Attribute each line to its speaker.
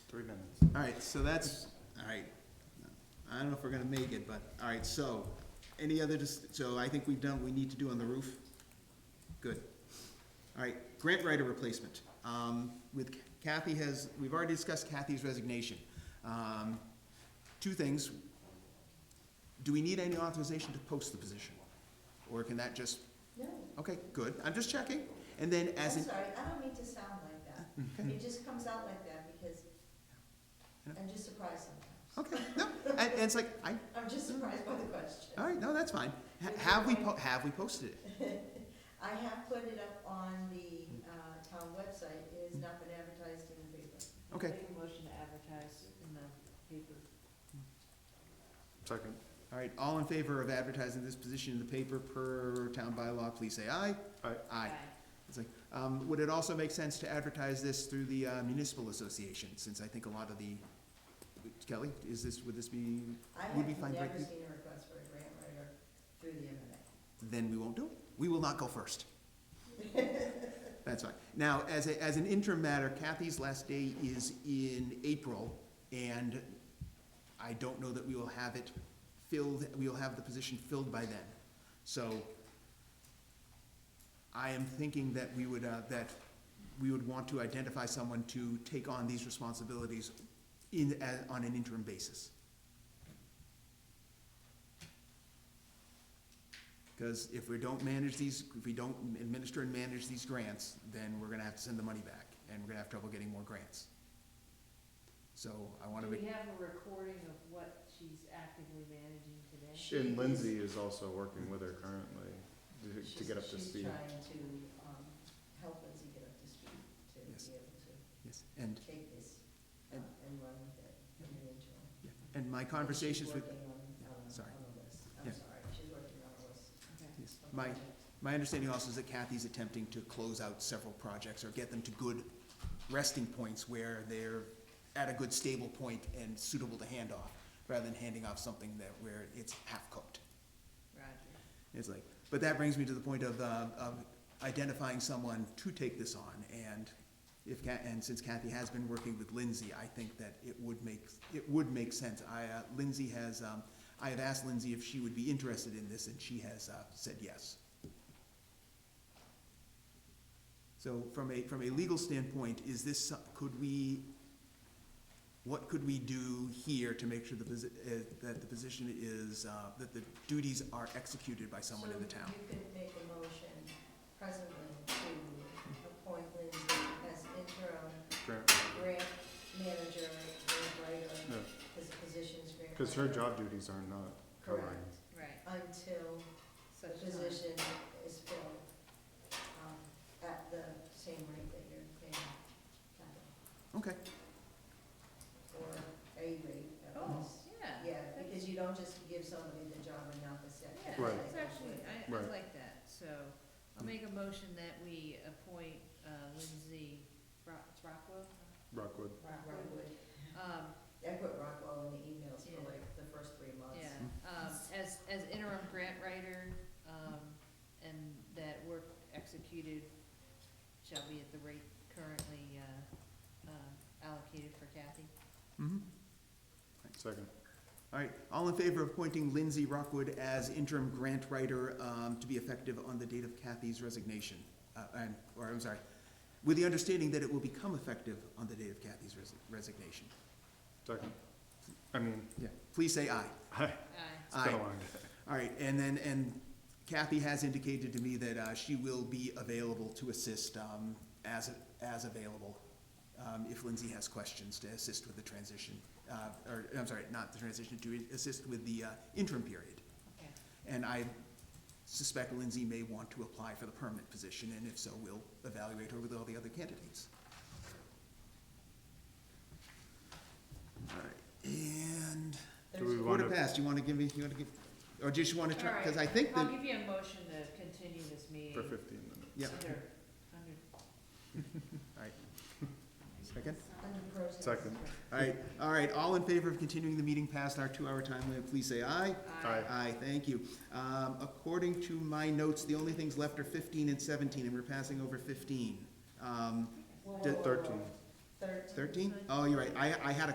Speaker 1: three minutes.
Speaker 2: All right, so that's, all right, I don't know if we're gonna make it, but, all right, so, any other, dis- so I think we've done what we need to do on the roof? Good. All right, grant writer replacement. Um, with Kathy has, we've already discussed Kathy's resignation. Um, two things. Do we need any authorization to post the position? Or can that just,
Speaker 3: No,
Speaker 2: okay, good, I'm just checking. And then
Speaker 3: I'm
Speaker 2: as an,
Speaker 3: sorry, I don't mean to sound like that. It just comes out like that because
Speaker 2: Yeah.
Speaker 3: I'm just surprised sometimes.
Speaker 2: okay, no, and, and it's like, I,
Speaker 3: I'm just surprised by the question.
Speaker 2: all right, no, that's fine. Ha- Have we, po- have we posted it?
Speaker 3: I have put it up on the uh, town website, it has not been advertised in the paper.
Speaker 2: Okay.
Speaker 4: Make a motion to advertise in the paper.
Speaker 1: Second.
Speaker 2: All right, all in favor of advertising this position in the paper per town bylaw, please say aye.
Speaker 1: Aye.
Speaker 2: Aye. It's like, um, would it also make sense to advertise this through the uh, municipal association, since I think a lot of the, Kelly, is this, would this be,
Speaker 3: I have
Speaker 2: Would we find
Speaker 3: never
Speaker 2: right-
Speaker 3: seen a request for a grant writer through the MMA.
Speaker 2: then we won't do it. We will not go first. That's fine. Now, as a, as an interim matter, Kathy's last day is in April, and I don't know that we will have it filled, we will have the position filled by then. So I am thinking that we would, uh, that we would want to identify someone to take on these responsibilities in, a- on an interim basis. Because if we don't manage these, if we don't administer and manage these grants, then we're gonna have to send the money back, and we're gonna have trouble getting more grants. So I wanna
Speaker 4: Do
Speaker 2: be.
Speaker 4: we have a recording of what she's actively managing today?
Speaker 1: And Lindsay is also working with her currently to- to
Speaker 3: She's-
Speaker 1: get up to
Speaker 3: She's
Speaker 1: speed.
Speaker 3: trying to um, help Lindsay get up to speed, to
Speaker 2: Yes.
Speaker 3: be able to
Speaker 2: Yes, and,
Speaker 3: take this uh,
Speaker 2: And-
Speaker 3: and run with it in the interim.
Speaker 2: and my conversations with,
Speaker 3: She's working on, on-
Speaker 2: sorry.
Speaker 3: on a list.
Speaker 2: Yeah.
Speaker 3: I'm sorry, she's working on a list.
Speaker 4: Okay.
Speaker 2: yes,
Speaker 3: of
Speaker 2: my,
Speaker 3: projects.
Speaker 2: my understanding also is that Kathy's attempting to close out several projects or get them to good resting points where they're at a good stable point and suitable to hand off, rather than handing off something that, where it's half cooked.
Speaker 4: Roger.
Speaker 2: It's like, but that brings me to the point of, uh, of identifying someone to take this on, and if Ca- and since Kathy has been working with Lindsay, I think that it would make, it would make sense. I, uh, Lindsay has, um, I have asked Lindsay if she would be interested in this, and she has, uh, said yes. So from a, from a legal standpoint, is this, so- could we, what could we do here to make sure the posi- uh, that the position is, uh, that the duties are executed by someone in the town?
Speaker 3: So you could make a motion presently to appoint Lindsay as interim
Speaker 1: Grant-
Speaker 3: grant manager, grant writer,
Speaker 1: no,
Speaker 3: because the position's grant.
Speaker 1: Cause her
Speaker 3: writer.
Speaker 1: job duties are not covering.
Speaker 3: Correct,
Speaker 4: Right.
Speaker 3: until the
Speaker 4: Such time.
Speaker 3: position is filled, um, at the same rate that you're paying Kathy,
Speaker 2: Okay,
Speaker 3: or a rate at
Speaker 4: Oh,
Speaker 3: least.
Speaker 4: yeah.
Speaker 3: Yeah,
Speaker 4: that's-
Speaker 3: because you don't just give somebody the job and not the second.
Speaker 4: Yeah,
Speaker 1: Right.
Speaker 4: it's actually, I, I
Speaker 1: Right.
Speaker 4: like that, so I'll make a motion that we appoint uh, Lindsay Rock, it's Rockwell,
Speaker 1: Rockwood,
Speaker 3: Rockwood,
Speaker 4: um,
Speaker 3: I put Rockwell in the emails for
Speaker 4: Yeah.
Speaker 3: like the first three months.
Speaker 4: Yeah, um, as, as interim grant writer, um, and that work executed shall be at the rate currently, uh, uh, allocated for Kathy.
Speaker 2: mhm.
Speaker 1: second.
Speaker 2: All right, all in favor of appointing Lindsay Rockwood as interim grant writer um, to be effective on the date of Kathy's resignation? Uh, and- Or, I'm sorry, with the understanding that it will become effective on the date of Kathy's resi- resignation.
Speaker 1: Second. I mean,
Speaker 2: Yeah. Please say aye.
Speaker 1: it's
Speaker 4: Aye.
Speaker 1: been a
Speaker 2: Aye.
Speaker 1: long day.
Speaker 2: All right, and then, and Kathy has indicated to me that uh, she will be available to assist um, as, as available um, if Lindsay has questions to assist with the transition, uh, or, I'm sorry, not the transition, to assist with the uh, interim period.
Speaker 4: Okay.
Speaker 2: And I suspect Lindsay may want to apply for the permanent position, and if so, we'll evaluate her with all the other candidates. All right, and
Speaker 1: Do we
Speaker 3: There's-
Speaker 1: want
Speaker 2: quarter
Speaker 1: to,
Speaker 2: past, you wanna give me, you wanna give, or just you wanna try,
Speaker 4: All
Speaker 2: cause I
Speaker 4: right,
Speaker 2: think
Speaker 4: I'll
Speaker 2: that,
Speaker 4: give you a motion to continue this meeting.
Speaker 1: for fifteen minutes?
Speaker 2: yeah,
Speaker 4: Under, under.
Speaker 2: alright. Second?
Speaker 3: Under protest.
Speaker 1: Second.
Speaker 2: Alright, alright, all in favor of continuing the meeting past our two-hour time limit, please say aye.
Speaker 1: Aye.
Speaker 2: Aye, thank you. Um, according to my notes, the only things left are fifteen and seventeen, and we're passing over fifteen. Um,
Speaker 3: Whoa, whoa,
Speaker 2: Did-
Speaker 3: whoa, whoa.
Speaker 1: Thirteen.
Speaker 3: thirteen.
Speaker 2: Thirteen? Oh, you're right, I, I had a